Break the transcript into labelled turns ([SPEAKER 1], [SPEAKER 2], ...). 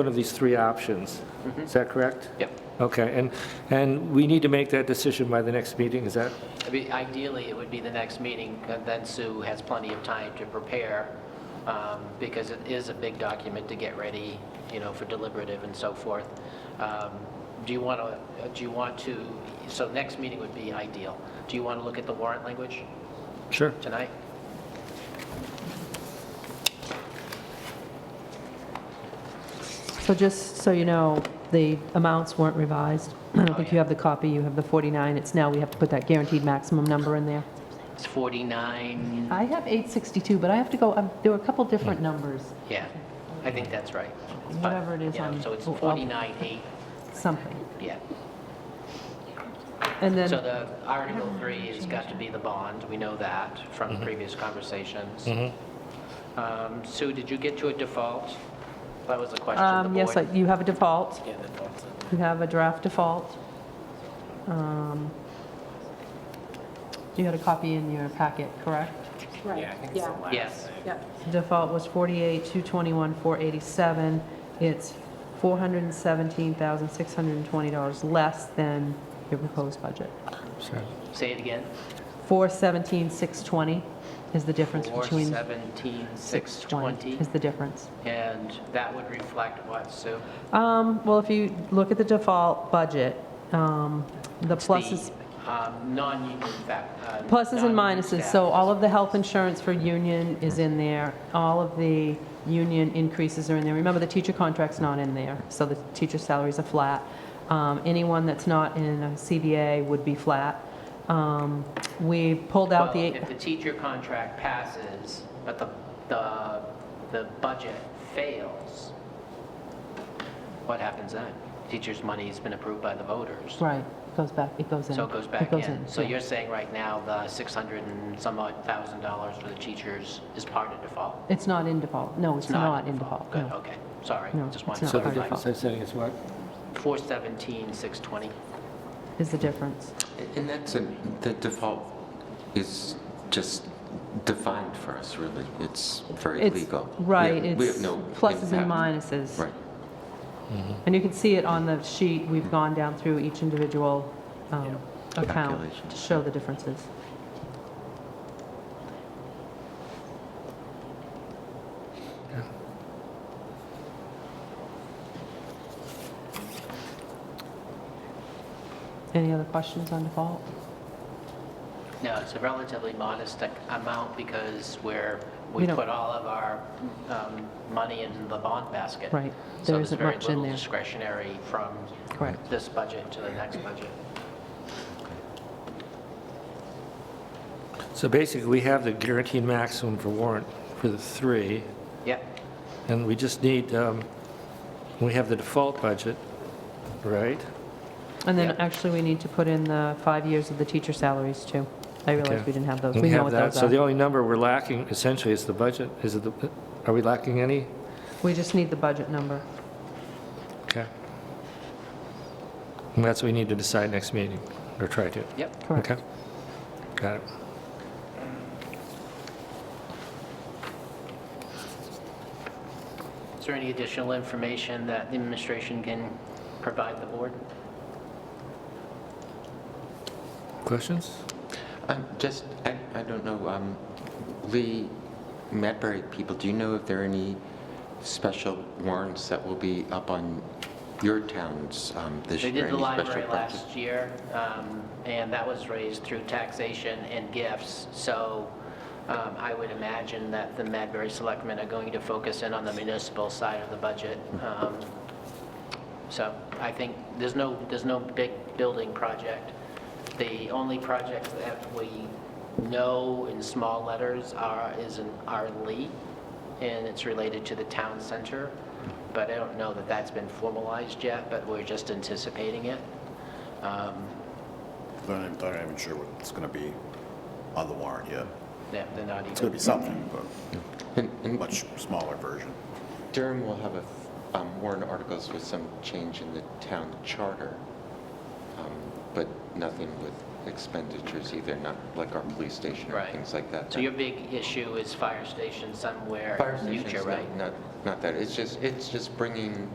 [SPEAKER 1] one of these three options.
[SPEAKER 2] Mm-hmm.
[SPEAKER 1] Is that correct?
[SPEAKER 3] Yep.
[SPEAKER 1] Okay, and, and we need to make that decision by the next meeting, is that?
[SPEAKER 3] I mean, Ideally, it would be the next meeting, and then Sue has plenty of time to prepare, um, because it is a big document to get ready, you know, for deliberative and so forth. Um, Do you want to, do you want to, so next meeting would be ideal. Do you want to look at the warrant language
[SPEAKER 1] Sure.
[SPEAKER 3] tonight?
[SPEAKER 2] So just so you know, the amounts weren't revised. I don't think you have the copy, you have the 49, it's now, we have to put that guaranteed maximum number in there.
[SPEAKER 3] It's 49,
[SPEAKER 2] I have 862, but I have to go, um, there were a couple different numbers,
[SPEAKER 3] yeah, I think that's right. It's fine.
[SPEAKER 2] Whatever it is
[SPEAKER 3] Yeah,
[SPEAKER 2] on-
[SPEAKER 3] So it's
[SPEAKER 2] oh, oh.
[SPEAKER 3] 49, 8,
[SPEAKER 2] something.
[SPEAKER 3] yeah.
[SPEAKER 2] And then,
[SPEAKER 3] So the Article 3 has got to be the bond, we know that from previous conversations. Um, Sue, did you get to a default? That was the question of the
[SPEAKER 2] um,
[SPEAKER 3] board.
[SPEAKER 2] yes, I- you have a default,
[SPEAKER 3] Yeah, defaults.
[SPEAKER 2] you have a draft default. Um, You had a copy in your packet, correct?
[SPEAKER 4] Right, yeah,
[SPEAKER 3] Yes,
[SPEAKER 4] yeah.
[SPEAKER 2] Default was 48, 221, 487. It's $417,620 less than your proposed budget.
[SPEAKER 3] say it again.
[SPEAKER 2] 417,620 is the difference between...
[SPEAKER 3] 417, 620,
[SPEAKER 2] Is the difference.
[SPEAKER 3] and that would reflect what, Sue?
[SPEAKER 2] Um, Well, if you look at the default budget, um, the
[SPEAKER 3] It's
[SPEAKER 2] pluses,
[SPEAKER 3] the, um, Non-union fact. uh,
[SPEAKER 2] pluses and
[SPEAKER 3] non-union
[SPEAKER 2] minuses,
[SPEAKER 3] staff.
[SPEAKER 2] so all of the health insurance for union is in there, all of the union increases are in there. Remember, the teacher contract's not in there, so the teacher salaries are flat. Um, Anyone that's not in a CBA would be flat. Um, We pulled out
[SPEAKER 3] Well,
[SPEAKER 2] the,
[SPEAKER 3] If the teacher contract passes, but the, the, the budget fails, what happens then? Teacher's money's been approved by the voters,
[SPEAKER 2] right, goes back, it goes in.
[SPEAKER 3] so it goes back in. So
[SPEAKER 2] yeah.
[SPEAKER 3] you're saying right now, the 600 and some odd thousand dollars for the teachers is part of default?
[SPEAKER 2] It's not in default, no, it's not in default,
[SPEAKER 3] Good,
[SPEAKER 2] no.
[SPEAKER 3] okay, sorry,
[SPEAKER 2] No,
[SPEAKER 3] just
[SPEAKER 2] it's
[SPEAKER 3] wanted to
[SPEAKER 2] not
[SPEAKER 1] So the
[SPEAKER 2] part of
[SPEAKER 3] clarify.
[SPEAKER 1] difference I'm saying is what?
[SPEAKER 3] 417, 620,
[SPEAKER 2] is the difference.
[SPEAKER 5] And that's, a- the default is just defined for us, really. It's very
[SPEAKER 2] It's-
[SPEAKER 5] legal. We
[SPEAKER 2] right,
[SPEAKER 5] have- We
[SPEAKER 2] it's
[SPEAKER 5] have no.
[SPEAKER 2] pluses and
[SPEAKER 5] impact.
[SPEAKER 2] minuses.
[SPEAKER 5] Right.
[SPEAKER 2] And you can see it on the sheet, we've gone down through each individual um, account
[SPEAKER 5] Calculation.
[SPEAKER 2] to show the differences. Any other questions on default?
[SPEAKER 3] No, it's a relatively modest ac- amount because we're, we
[SPEAKER 2] We don't-
[SPEAKER 3] put all of our um, money in the bond basket.
[SPEAKER 2] Right.
[SPEAKER 3] So
[SPEAKER 2] There
[SPEAKER 3] there's
[SPEAKER 2] isn't
[SPEAKER 3] very
[SPEAKER 2] much in
[SPEAKER 3] little
[SPEAKER 2] there.
[SPEAKER 3] discretionary from
[SPEAKER 2] Correct.
[SPEAKER 3] this budget to the next budget.
[SPEAKER 1] So basically, we have the guaranteed maximum for warrant for the three,
[SPEAKER 3] Yep,
[SPEAKER 1] and we just need, um, we have the default budget, right?
[SPEAKER 2] And then
[SPEAKER 3] Yeah.
[SPEAKER 2] actually, we need to put in the five years of the teacher salaries, too. I realized we didn't have those.
[SPEAKER 1] And
[SPEAKER 2] We know
[SPEAKER 1] have
[SPEAKER 2] what
[SPEAKER 1] that.
[SPEAKER 2] those
[SPEAKER 1] So the
[SPEAKER 2] are.
[SPEAKER 1] only number we're lacking essentially is the budget. Is it, the? are we lacking any?
[SPEAKER 2] We just need the budget number.
[SPEAKER 1] Okay. And that's what we need to decide next meeting, or try to.
[SPEAKER 3] yep.
[SPEAKER 2] Correct.
[SPEAKER 1] Okay. Got it.
[SPEAKER 3] Is there any additional information that the administration can provide the board?
[SPEAKER 1] Questions?
[SPEAKER 5] Um, Just, I I don't know, um, Lee, Madbury people, do you know if there are any special warrants that will be up on your towns um, this
[SPEAKER 3] They
[SPEAKER 5] year?
[SPEAKER 3] did the
[SPEAKER 5] Any special
[SPEAKER 3] library
[SPEAKER 5] projects?
[SPEAKER 3] last year, um, and that was raised through taxation and gifts. So um, I would imagine that the Madbury Selectmen are going to focus in on the municipal side of the budget. Um, So I think there's no, there's no big building project. The only projects that we know in small letters are, is in our Lee, and it's related to the town center, but I don't know that that's been formalized yet, but we're just anticipating it. Um,
[SPEAKER 6] They're not, they're not even sure what's going to be on the warrant yet.
[SPEAKER 3] yeah, They're not
[SPEAKER 6] It's going
[SPEAKER 3] even,
[SPEAKER 6] to be something, but
[SPEAKER 5] And- and
[SPEAKER 6] much smaller version.
[SPEAKER 5] Durham will have a um, warrant articles with some change in the town charter, um, but nothing with expenditures either, not like our police station or
[SPEAKER 3] Right.
[SPEAKER 5] things like that.
[SPEAKER 3] so your big issue is fire station somewhere
[SPEAKER 5] Fire
[SPEAKER 3] in the
[SPEAKER 5] station's
[SPEAKER 3] future,
[SPEAKER 5] not-
[SPEAKER 3] right?
[SPEAKER 5] Not, not that, it's just, it's just bringing